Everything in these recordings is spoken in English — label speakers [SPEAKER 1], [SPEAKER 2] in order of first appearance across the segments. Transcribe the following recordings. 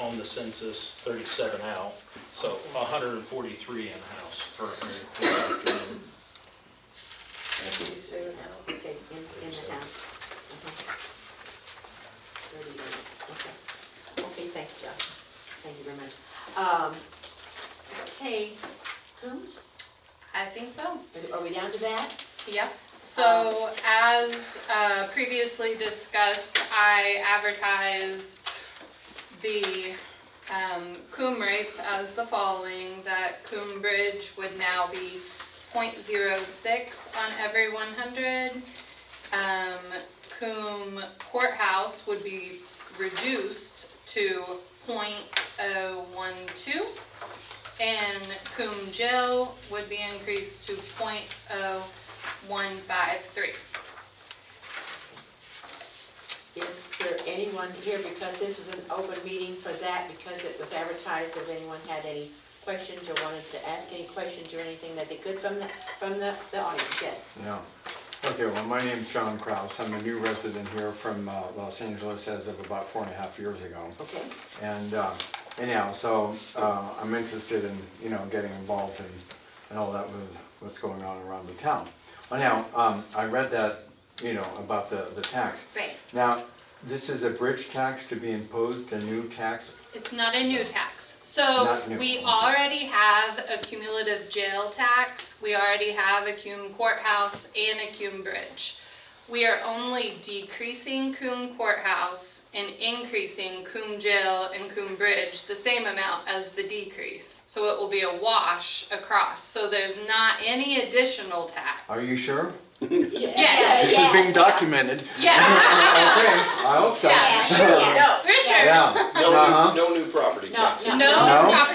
[SPEAKER 1] on the census, thirty-seven out, so hundred and forty-three in-house. Correct.
[SPEAKER 2] Did you say without? Okay, in, in the house. Uh-huh. Thirty-eight, okay. Okay, thank you, Josh. Thank you very much. Um, okay, Coombs,
[SPEAKER 3] I think so,
[SPEAKER 2] are- are we down to that?
[SPEAKER 3] yep.
[SPEAKER 4] Um,
[SPEAKER 3] So as uh, previously discussed, I advertised the um, coombe rates as the following, that Coombe Bridge would now be .06 on every 100. Um, Coombe Courthouse would be reduced to .012. And Coombe Jail would be increased to .0153.
[SPEAKER 2] Is there anyone here, because this is an open meeting for that, because it was advertised, if anyone had any questions or wanted to ask any questions or anything that they could from the, from the, the audience, yes?
[SPEAKER 4] No. Okay, well, my name's John Kraus. I'm a new resident here from uh, Los Angeles as of about four and a half years ago.
[SPEAKER 2] Okay,
[SPEAKER 4] And uh, anyhow, so uh, I'm interested in, you know, getting involved in, and all that with what's going on around the town. Well, now, um, I read that, you know, about the, the tax.
[SPEAKER 3] Right.
[SPEAKER 4] Now, this is a bridge tax to be imposed, a new tax.
[SPEAKER 3] It's not a new tax. So
[SPEAKER 4] Not new,
[SPEAKER 3] we
[SPEAKER 4] okay.
[SPEAKER 3] already have a cumulative jail tax, we already have a Coombe courthouse and a Coombe bridge. We are only decreasing Coombe courthouse and increasing Coombe jail and Coombe bridge the same amount as the decrease. So it will be a wash across, so there's not any additional tax.
[SPEAKER 4] Are you sure?
[SPEAKER 3] Yes.
[SPEAKER 2] This is being
[SPEAKER 4] documented.
[SPEAKER 3] Yes, I
[SPEAKER 4] Okay, I hope so.
[SPEAKER 3] Yeah,
[SPEAKER 2] No.
[SPEAKER 3] know, for sure.
[SPEAKER 4] Yeah.
[SPEAKER 5] No
[SPEAKER 4] Uh-huh.
[SPEAKER 5] new, no new property
[SPEAKER 2] No,
[SPEAKER 5] taxes.
[SPEAKER 3] No
[SPEAKER 4] No?
[SPEAKER 3] property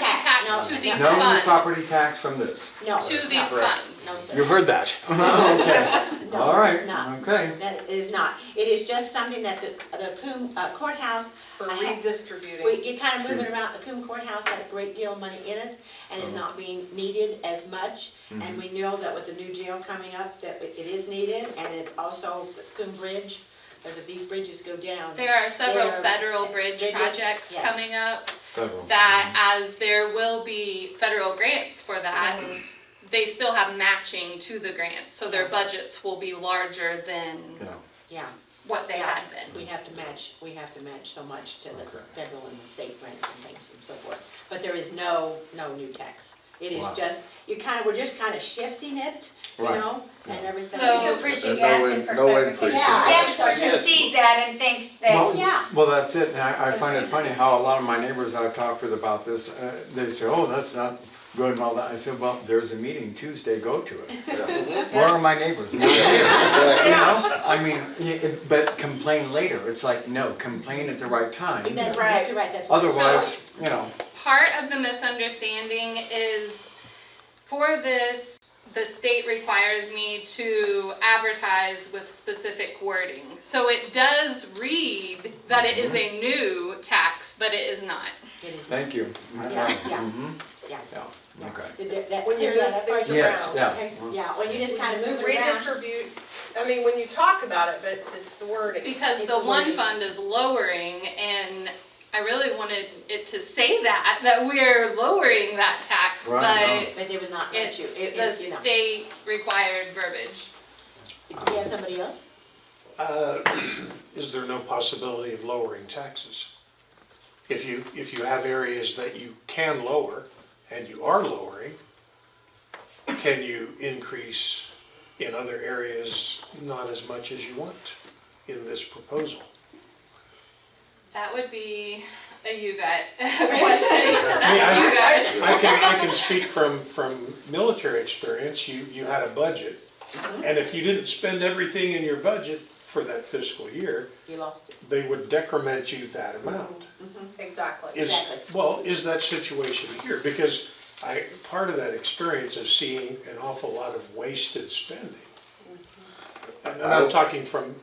[SPEAKER 2] No,
[SPEAKER 3] tax to these funds.
[SPEAKER 4] No new property tax from this.
[SPEAKER 2] No.
[SPEAKER 3] To
[SPEAKER 2] no.
[SPEAKER 3] these funds.
[SPEAKER 2] No, sir.
[SPEAKER 4] You heard that. Okay,
[SPEAKER 2] No,
[SPEAKER 4] all right,
[SPEAKER 2] it's not.
[SPEAKER 4] okay.
[SPEAKER 2] That is not. It is just something that the, the Coombe uh, courthouse,
[SPEAKER 6] for
[SPEAKER 2] I had-
[SPEAKER 6] redistributing.
[SPEAKER 2] we, you're kind of moving around, the Coombe courthouse had a great deal of money in it, and it's not being needed as much. And we know that with the new jail coming up, that it it is needed, and it's also Coombe Bridge, because if these bridges go down.
[SPEAKER 3] There are several
[SPEAKER 2] There-
[SPEAKER 3] federal bridge
[SPEAKER 2] bridges,
[SPEAKER 3] projects
[SPEAKER 2] yes.
[SPEAKER 3] coming up
[SPEAKER 4] Several.
[SPEAKER 3] that as there will be federal grants for that,
[SPEAKER 2] Mm-hmm.
[SPEAKER 3] they still have matching to the grants, so their budgets will be larger than
[SPEAKER 4] Yeah,
[SPEAKER 2] Yeah,
[SPEAKER 3] what they
[SPEAKER 2] Yeah.
[SPEAKER 3] had been.
[SPEAKER 2] we have to match, we have to match so much to the
[SPEAKER 4] Okay.
[SPEAKER 2] federal and the state grants and things and so forth. But there is no, no new tax. It is
[SPEAKER 4] Wow.
[SPEAKER 2] just, you kind of, we're just kind of shifting it, you
[SPEAKER 4] Right.
[SPEAKER 2] know, and everything.
[SPEAKER 3] So-
[SPEAKER 7] We do appreciate you
[SPEAKER 8] There's no
[SPEAKER 7] asking
[SPEAKER 8] in-
[SPEAKER 7] for
[SPEAKER 8] no
[SPEAKER 7] clarification.
[SPEAKER 8] increase.
[SPEAKER 2] Yeah.
[SPEAKER 7] Because every person sees that and thinks that,
[SPEAKER 2] yeah.
[SPEAKER 4] Well, well, that's it, and I, I
[SPEAKER 7] Those
[SPEAKER 4] find it funny
[SPEAKER 7] changes.
[SPEAKER 4] how a lot of my neighbors I've talked with about this, uh, they say, oh, that's not good and all that. I said, well, there's a meeting Tuesday, go to it. Where are my neighbors? Not here. You
[SPEAKER 8] Exactly.
[SPEAKER 4] know, I mean, y- it- but complain later, it's like, no, complain at the right time.
[SPEAKER 2] That's exactly right, that's. what-
[SPEAKER 4] Otherwise, you know,
[SPEAKER 3] Part of the misunderstanding is for this, the state requires me to advertise with specific wording. So it does read that it is a new tax, but it is not.
[SPEAKER 2] It is-
[SPEAKER 4] thank you.
[SPEAKER 2] Yeah, yeah,
[SPEAKER 4] Mhm.
[SPEAKER 2] yeah.
[SPEAKER 4] Yeah, okay.
[SPEAKER 2] That- that- that- When you're that far around.
[SPEAKER 4] Yes, yeah.
[SPEAKER 2] okay? Yeah, when you just kind of move it around.
[SPEAKER 6] Redistribute, I mean, when you talk about it, but it's the wording.
[SPEAKER 3] Because
[SPEAKER 2] It's
[SPEAKER 3] the one
[SPEAKER 2] limited.
[SPEAKER 3] fund is lowering and I really wanted it to say that, that we're lowering that tax,
[SPEAKER 4] Right,
[SPEAKER 3] but
[SPEAKER 2] But they would not let
[SPEAKER 3] it's
[SPEAKER 2] you, it is, you
[SPEAKER 3] the
[SPEAKER 2] know.
[SPEAKER 3] state required verbiage.
[SPEAKER 2] Do you have somebody else?
[SPEAKER 9] Uh, Is there no possibility of lowering taxes? If you, if you have areas that you can lower, and you are lowering, can you increase in other areas not as much as you want in this proposal?
[SPEAKER 3] That would be a you guys question. That's you guys.
[SPEAKER 9] I can, I can speak from, from military experience, you, you had a budget, and if you didn't spend everything in your budget for that fiscal year,
[SPEAKER 2] You lost it.
[SPEAKER 9] they would decrement you that amount.
[SPEAKER 6] Exactly.
[SPEAKER 9] Is,
[SPEAKER 2] Exactly.
[SPEAKER 9] well, is that situation here? Because I, part of that experience is seeing an awful lot of wasted spending.
[SPEAKER 8] Mm-hmm.
[SPEAKER 9] And I'm talking from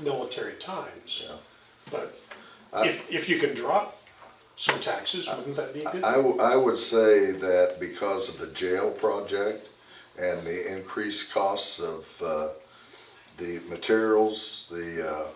[SPEAKER 9] military times,
[SPEAKER 8] Yeah.
[SPEAKER 9] but if, if you can drop some taxes, wouldn't that be good?
[SPEAKER 8] I, w- I would say that because of the jail project and the increased costs of, uh, the materials, the, uh,